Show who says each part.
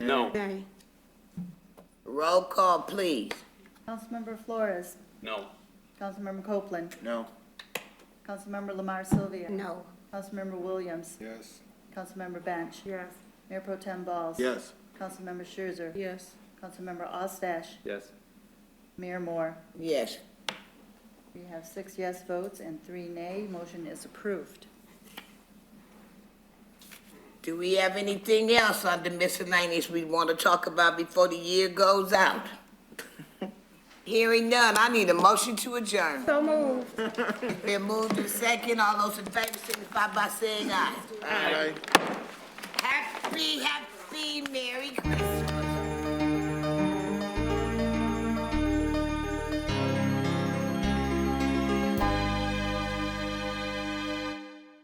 Speaker 1: No,
Speaker 2: Nay.
Speaker 3: Roll call, please.
Speaker 4: Councilmember Flores,
Speaker 1: no,
Speaker 4: Councilmember Copeland,
Speaker 5: No.
Speaker 4: Councilmember Lamar Sylvia,
Speaker 2: No.
Speaker 4: Councilmember Williams,
Speaker 5: Yes.
Speaker 4: Councilmember Bench,
Speaker 2: Yes.
Speaker 4: Mayor Pro Tem Balls.
Speaker 5: Yes.
Speaker 4: Councilmember Scherzer,
Speaker 2: Yes.
Speaker 4: Councilmember Ostache,
Speaker 1: yes,
Speaker 4: Mayor Moore.
Speaker 3: Yes.
Speaker 4: We have six yes votes and three nay. Motion is approved.
Speaker 3: Do we have anything else under miscellaneous we want to talk about before the year goes out? Hearing none, I need a motion to adjourn.
Speaker 2: So moved.
Speaker 3: Been moved to second, all those in favor signify by saying aye.
Speaker 5: Aye.
Speaker 3: Happy, happy Merry Christmas.